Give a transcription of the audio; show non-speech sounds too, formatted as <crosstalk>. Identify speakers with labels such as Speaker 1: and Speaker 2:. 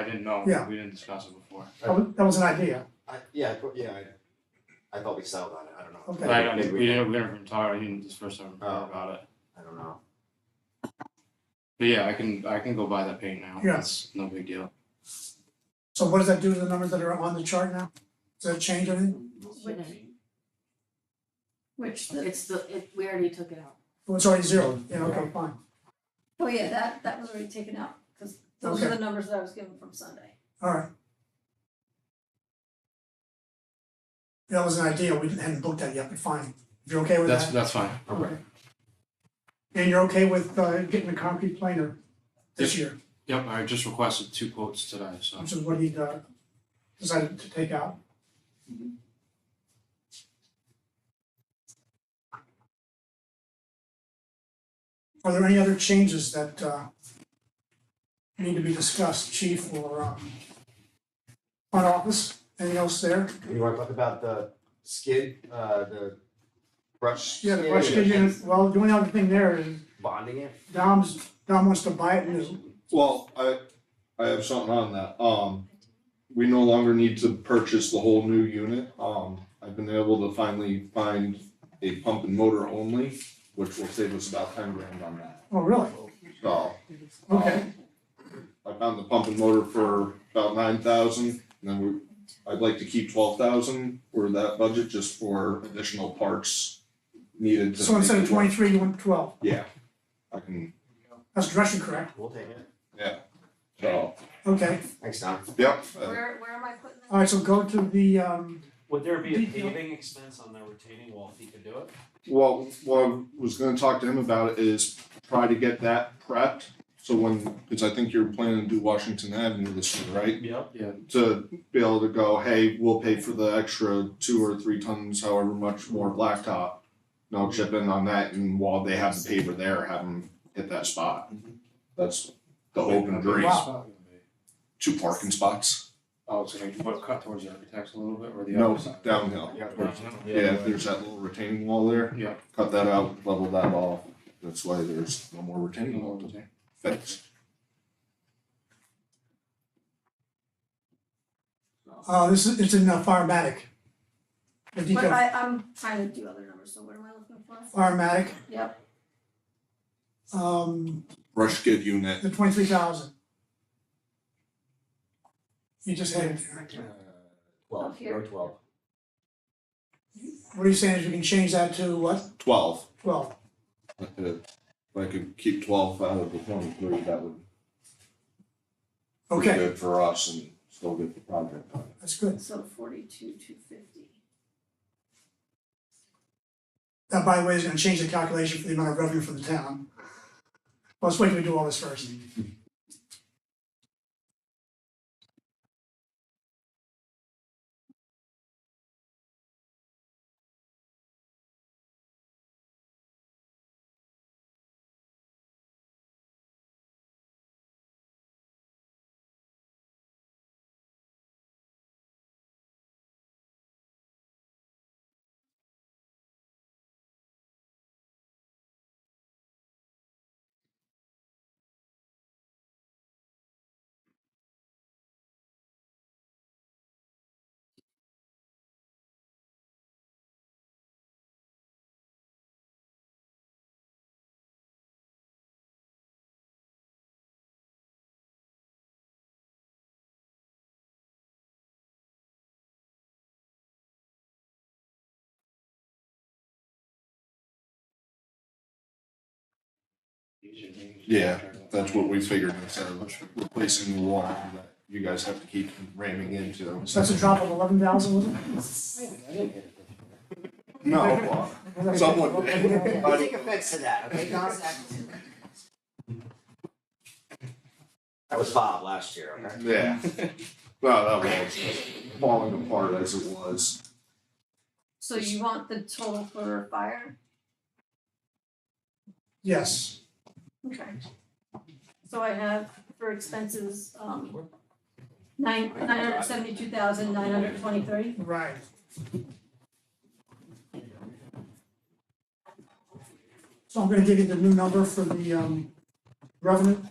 Speaker 1: I didn't know,
Speaker 2: Yeah.
Speaker 1: we didn't discuss it before.
Speaker 2: That was, that was an idea.
Speaker 3: I, yeah, I, put- yeah, I, I thought we settled on it, I don't know.
Speaker 2: Okay.
Speaker 1: But I don't,
Speaker 3: Maybe
Speaker 1: we didn't, we didn't talk, I didn't, this first time
Speaker 3: Oh.
Speaker 1: about it.
Speaker 3: I don't know.
Speaker 1: But yeah, I can, I can go buy that paint now,
Speaker 2: Yeah.
Speaker 1: it's no big deal.
Speaker 2: So what does that do to the numbers that are on the chart now? Does that change anything?
Speaker 4: Which the,
Speaker 5: It's the, it, we already took it out.
Speaker 2: Well, it's already Oh, zero. Yeah, okay, fine.
Speaker 4: oh yeah, that that was already taken out, cause those are the numbers that I was given from Sunday.
Speaker 2: All right. That was an idea. We hadn't booked that yet, but fine. If you're okay with
Speaker 1: That's,
Speaker 2: that?
Speaker 1: that's fine.
Speaker 3: Okay.
Speaker 2: And you're okay with uh, getting a concrete planer this year,
Speaker 1: Yep, I just requested two quotes today, so.
Speaker 2: which is what he uh, decided to take out. Are there any other changes that uh, need to be discussed, chief or um, front office? Anything else there?
Speaker 3: You wanna talk about the skid, uh, the brush?
Speaker 2: Yeah, the brush kid
Speaker 3: skid and
Speaker 2: unit, well, the only other thing there is
Speaker 3: Bonding it?
Speaker 2: Dom's, Dom wants to buy it new.
Speaker 6: Well, I, I have something on that, um, we no longer need to purchase the whole new unit, um, I've been able to finally find a pump and motor only, which will save us about ten grand on that,
Speaker 2: Oh, really?
Speaker 6: so. um,
Speaker 2: Okay,
Speaker 6: I found the pump and motor for about nine thousand, and then we, I'd like to keep twelve thousand for that budget just for additional parts needed to.
Speaker 2: so instead
Speaker 6: make
Speaker 2: of
Speaker 6: it work.
Speaker 2: twenty-three, you want twelve.
Speaker 6: Yeah, I can,
Speaker 2: That's direction correct.
Speaker 3: We'll take it.
Speaker 6: so,
Speaker 2: Okay,
Speaker 3: Thanks, Tom.
Speaker 6: yep, uh,
Speaker 5: Where, where am I putting that?
Speaker 2: all right, so go to the, um,
Speaker 7: Would there be a
Speaker 2: Did you-
Speaker 7: paving expense on the retaining wall if he could do it?
Speaker 6: Well, what I was gonna talk to him about is try to get that prepped, so when, cause I think you're planning to do Washington Avenue this year, right?
Speaker 7: Yep.
Speaker 6: To be able to go, hey, we'll pay for the extra two or three tons, however much more blacktop. And I'll chip in on that, and while they have the paver there, have them hit that spot. That's the hope and dream,
Speaker 2: Wow.
Speaker 6: two parking spots,
Speaker 1: Oh, it's gonna, what, cut towards the architects a little bit, or the
Speaker 6: no,
Speaker 1: other side?
Speaker 6: downhill. Yeah, there's that little retaining wall there.
Speaker 1: Yeah.
Speaker 6: Cut that out, level that off, that's why there's no more retaining wall to fix.
Speaker 2: uh, this is, it's in uh, Firematic. The
Speaker 4: But
Speaker 2: detail,
Speaker 4: I I'm trying to do other numbers, so what am I looking for?
Speaker 2: Firematic,
Speaker 4: Yep,
Speaker 2: um,
Speaker 6: Brush kid unit.
Speaker 2: the twenty-three thousand. You just had it there.
Speaker 3: Twelve,
Speaker 4: Up here.
Speaker 3: row twelve.
Speaker 2: What are you saying is you can change that to what?
Speaker 6: Twelve.
Speaker 2: Twelve?
Speaker 6: If if I could keep twelve out of the twenty-three, that would be
Speaker 2: Okay,
Speaker 6: good for us and still get the project done.
Speaker 2: that's good.
Speaker 4: so forty-two, two fifty.
Speaker 2: That, by the way, is gonna change the calculation for the amount of revenue for the town. Well, Let's wait till we do all this first.
Speaker 6: Yeah, That's what we figured instead of replacing the wall that you guys have to keep ramming into.
Speaker 2: So that's a drop of eleven thousand, wasn't
Speaker 6: No, well,
Speaker 2: it?
Speaker 6: someone did.
Speaker 3: Don't take offense to that, okay, Tom? That was Bob last year, okay?
Speaker 6: Yeah. <laughs> Well, that was falling apart as it was.
Speaker 4: So you want the total for fire?
Speaker 2: Yes.
Speaker 4: Okay. So I have for expenses, um, nine, nine hundred seventy-two thousand, nine hundred twenty-three.
Speaker 2: Right. So I'm gonna give you the new number for the um revenue.